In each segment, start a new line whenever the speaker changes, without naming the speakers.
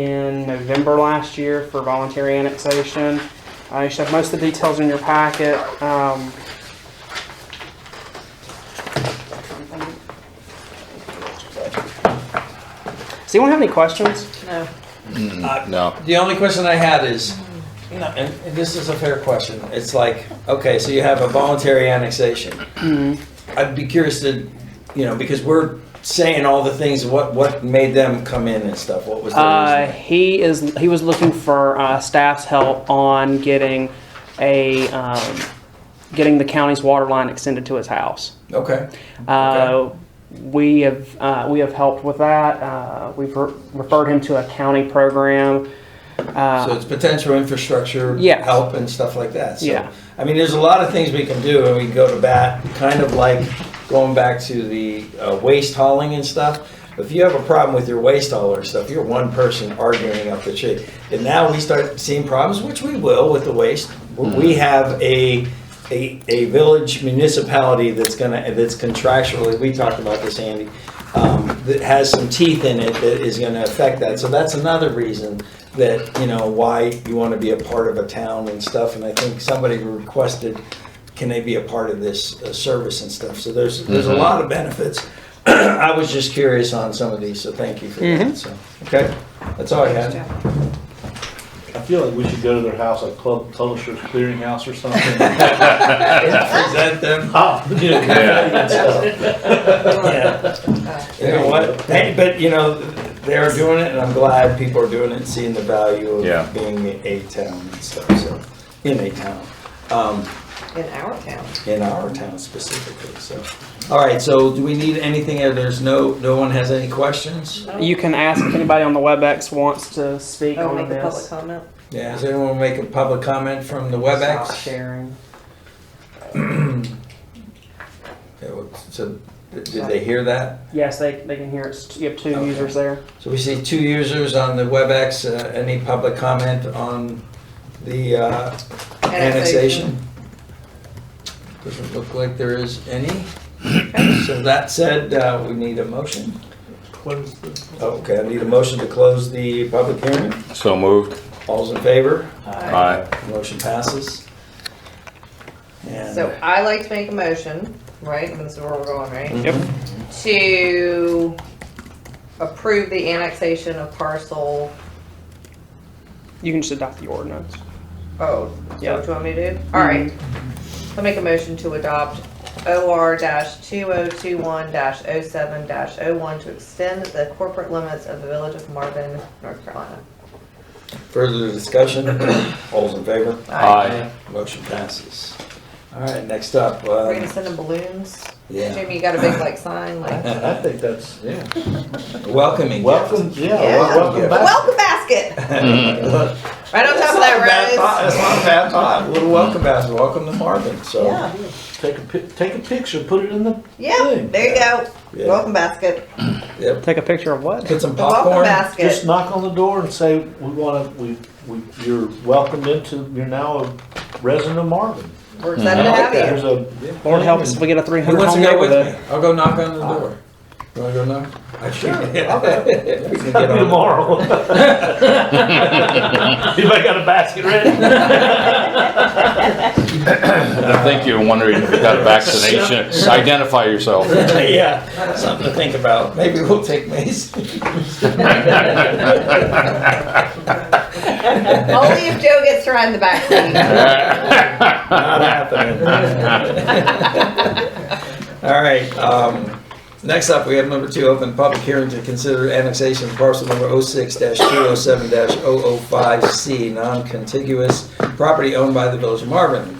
in November last year for voluntary annexation. Uh, you should have most of the details in your packet. Um, Does anyone have any questions?
No.
No.
The only question I had is, no, and and this is a fair question, it's like, okay, so you have a voluntary annexation. I'd be curious to, you know, because we're saying all the things, what, what made them come in and stuff, what was
Uh,
their reason?
he is he was looking for uh, staff's help on getting a um, getting the county's water line extended to his house.
Okay,
Uh, We have uh, we have helped with that. Uh, we've re- referred him to a county program. Uh,
so it's potential infrastructure
Yeah.
help and stuff like that, so.
Yeah.
I mean, there's a lot of things we can do, and we can go to bat, kind of like going back to the uh, waste hauling and stuff. If you have a problem with your waste hauler and stuff, you're one person arguing up the tree. And now we start seeing problems, which we will with the waste. We
Mm-hmm.
have a, a, a village municipality that's gonna, that's contractually, we talked about this, Andy, um, that has some teeth in it that is gonna affect that. So that's another reason that, you know, why you wanna be a part of a town and stuff. And I think somebody requested, can they be a part of this uh, service and stuff? So there's, there's a lot of benefits. I was just curious on some of these, so thank you for that, so, okay? That's all I had.
I feel like we should go to their house, like Club Publishers Clearinghouse or something.
Present them.
Ah, you know,
Yeah.
Yeah. You know what, hey, but you know, they're doing it, and I'm glad people are doing it, and seeing the value
Yeah.
of being a town and stuff, so, in a town. Um,
In our town.
in our town specifically, so. All right, so do we need anything, Uh, there's no, no one has any questions?
you can ask if anybody on the WebEx wants to speak
Oh,
on
make a public
this.
comment?
Yeah, does anyone make a public comment from the
Stop
WebEx?
sharing.
Okay, well, So, did did they hear that?
Yes, they, they can hear it. You have two
Okay.
users there.
So we see two users on the WebEx. Uh, Any public comment on the uh, annexation? Doesn't look like there is any. So that said, uh, we need a motion.
close the-
Okay, I need a motion to close the public hearing.
So moved.
All's in favor?
Aye.
Motion passes. And-
So I like to make a motion, right? And this is where we're going,
mhm,
right?
Yep.
To approve the annexation of parcel,
You can just adopt the ordinance.
oh, is that
Yeah.
what you want me to do? All right. I'll make a motion to adopt OR two oh two one oh 7 1 to extend the corporate limits of the village of Marvin, North Carolina.
Further discussion? All's in favor?
Aye.
Motion passes. All right, next up. uh,
We're gonna send them balloons.
Yeah.
Jamie, you got a big like sign, like
I think that's, yeah.
Welcoming.
Welcome, yeah,
Yeah.
wel- welcome back. Uh,
welcome basket
Look,
right on top
That's
of
not a bad
that
thought.
rose.
That's not a bad thought. Little welcome basket. Welcome to Marvin. So
Yeah,
Take a, pic- take a picture, put it in the
yeah.
thing.
There you go.
Yeah.
Welcome basket.
Yep.
Take a picture of what?
Put some
The welcome
popcorn.
Just
basket.
knock on the door and say, we want to, we, we, you're welcomed into, you're now a resident of Marvin.
We're excited to
I like
have
that.
you.
There's a.
Lord help us if we get a 300
Who wants to
home
go with
neighborhood.
me? I'll go knock on the door. You wanna go knock? I sure. We can get on.
Tomorrow. Anybody got a basket ready?
I think you're wondering if you got a vaccination. Identify yourself.
Yeah, something to think about. Maybe we'll take Mace.
Only if Joe gets to ride in the back seat.
Not happening. All right, um, next up, we have number two, open public hearing to consider annexation of parcel number oh six two oh seven 5 C, non-contiguous property owned by the village of Marvin.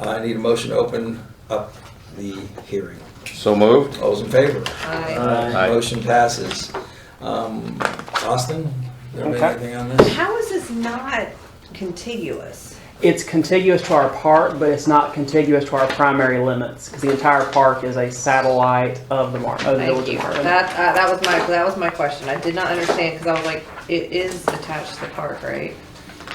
I need a motion to open up the hearing.
So moved.
All's in favor?
Hi.
Aye.
Motion passes. Um, Austin, there
Okay.
anything on this?
How is this not contiguous?
It's contiguous to our park, but it's not contiguous to our primary limits because the entire park is a satellite of the mar- of the
Thank
village
you.
of Marvin.
That uh, that was my that was my question. I did not understand because I was like, it is attached to the park, right?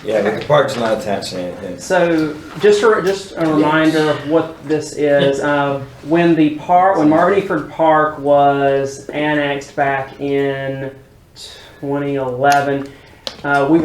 Yeah, but the park's not attached to anything.
So just a, just a reminder of what this is. Uh, when the park, when Marvin Eford Park was annexed back in 2011. Uh, we